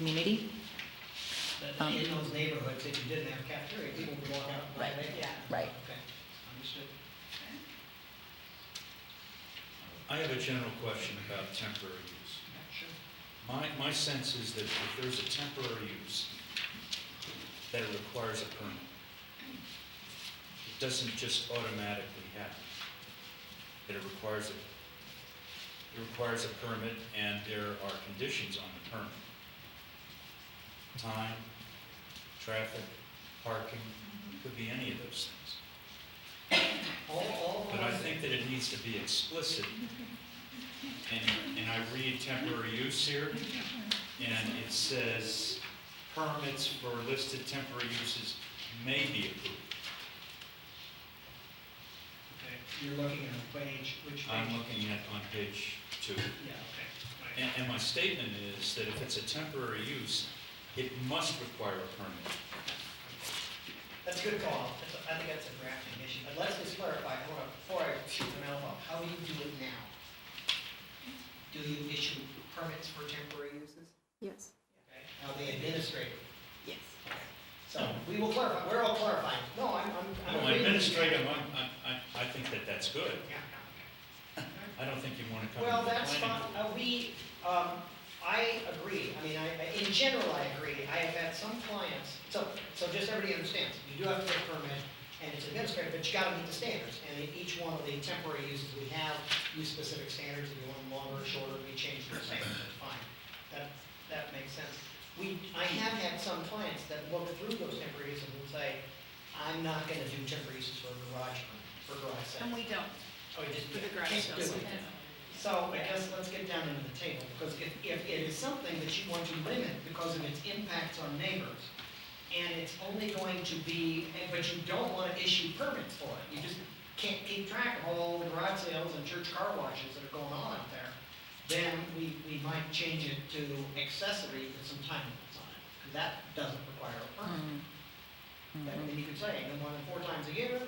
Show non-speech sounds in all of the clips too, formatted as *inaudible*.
community. But in those neighborhoods, if you didn't have cafeteria, people would walk out and buy Right. it. Yeah. Right. Okay, understood. I have a general question about temporary use. Sure. My, my sense is that if there's a temporary use that requires a permit, it doesn't just automatically happen. That it requires a, it requires a permit and there are conditions on the permit. Time, traffic, parking, could be any of those things. All, all. But I think that it needs to be explicit. And, and I read temporary use here, and it says, permits for listed temporary uses may be approved. Okay, You're looking at a page, which page? I'm looking at on page two. Yeah, okay, right. And, and my statement is that if it's a temporary use, it must require a permit. That's a good call. That's a- I think that's a drafting issue. But let's just clarify, hold on, before I shoot the mouth off, how do you do it now? Do you issue permits for temporary uses? Yes. Okay, How they administrate it? Yes. So we will clarify, we're all clarifying. No, I'm, I'm. I'm Well, agreeing with you. administrative, I'm, I, I, I think that that's good. Yeah, yeah. I don't think you want to come. Well, to the that's fine, planning board. uh, we, um, I agree, I mean, I, I- in general, I agree, I have had some clients, so, so just everybody understands, you do have to get a permit, and it's administrative, but you gotta meet the standards, and in each one of the temporary uses we have, use specific standards, if you want them longer or shorter, we change the standards, that's fine, that, that makes sense. We, I have had some clients that look through those temporary uses and say, I'm not gonna do temporary uses for a garage, for garage sale. And we don't, Oh, you just, for the can't garage do sales. it. So I guess let's get down into the table, because if, if it is something that you want to limit because of its impacts on neighbors, and it's only going to be, and- but you don't want to issue permits for it, you just can't keep track of all the garage sales and church car washes that are going on out there, then we, we might change it to accessory with some time limits on it, because that doesn't require a permit. Mm-hmm. And then you could say, no more than four times a year,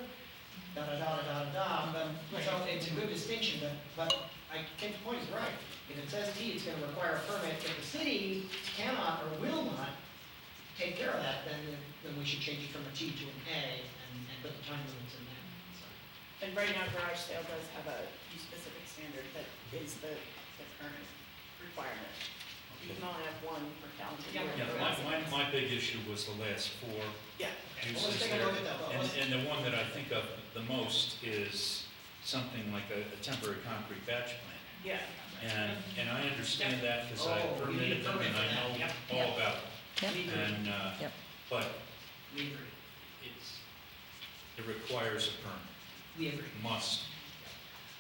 da, da, da, da, da, da, but, so it's a good distinction, but, but I think the point is right. If it says T, it's gonna require a permit, if the city cannot or will not take care of that, then, then we should change it from a T to an A and, and put the time limits in there, so. And right now garage sale does have a specific standard that is the, the current requirement. You can only have one per calendar year. Yeah, for my, residents. my, my big issue was the last four. Yeah. Well, let's uses take a there. look at that, though. And, Let's- and the one that I think of the most is something like a a temporary concrete batch plant. Yeah. And, and I understand that because I Oh, you need a permitted them permit and I for that. know Yep. all about Yep. We it. agree, And, uh, Yep. but we agree, it's, it requires a permit, we agree. must.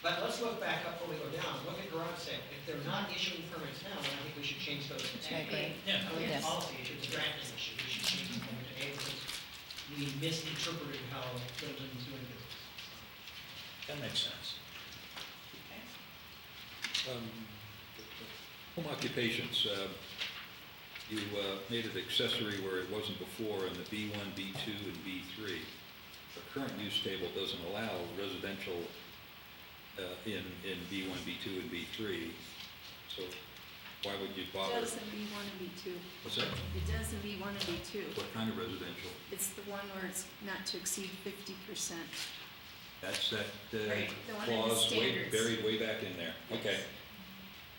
But let's look back up before we go down, look at garage sale, if they're not issuing permits now, then I think we should change those to I A. agree. Yeah. I think Yes. it's a policy issue, it's a drafting issue, we should change them over to A, because we misinterpreted how Groveland's doing business. That makes sense. Um, Home occupations, uh, you uh, made it accessory where it wasn't before in the B1, B2, and B3. The current use table doesn't allow residential uh, in, in B1, B2, and B3, so why would you It bother? does in B one and B two. What's that? It does in B one and B two. What kind of residential? It's the one where it's not to exceed fifty percent. That's that uh, Right, the one in the clause way- standards. buried way back in there. Okay.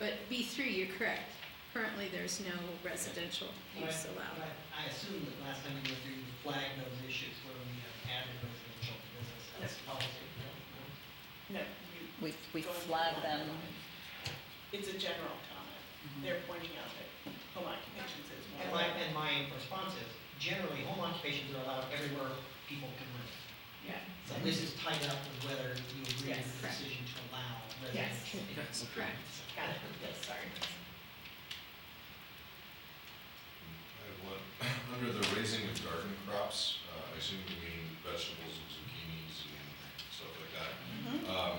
But B three, you're correct. Currently, there's no residential use But I- allowed. but I assume that last time we went through, you flagged those issues where we have added residential to business as policy. No, no? No, you, We, we flag them. it's a general comment. They're pointing out that home occupations is one. And my, and my response is, generally, home occupations are allowed everywhere people can live. Yeah. So this is tied up with whether you agree Yes. with the decision to allow Yes. residential. Okay. Correct. Got it, yes, sorry. I have one. *coughs* Under the raising of garden crops, uh, I assume you mean vegetables and zucchinis and stuff like that. Um,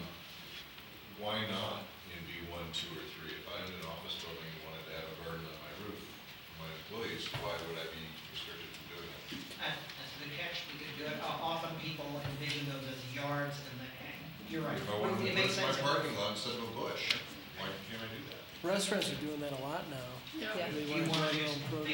Why not in B1, 2, or 3? If I'm in an office building and wanted to have a garden on my roof for my employees, why would I be restricted from doing that? That- That's a good catch, we could do it, Uh, often people envision those as yards and the, and you're right. If I wanted to It makes put my sense. parking lot instead of a bush, why can't I do that? Restaurants are doing that a lot now. No, Yeah. They You want to grow wanna their use- own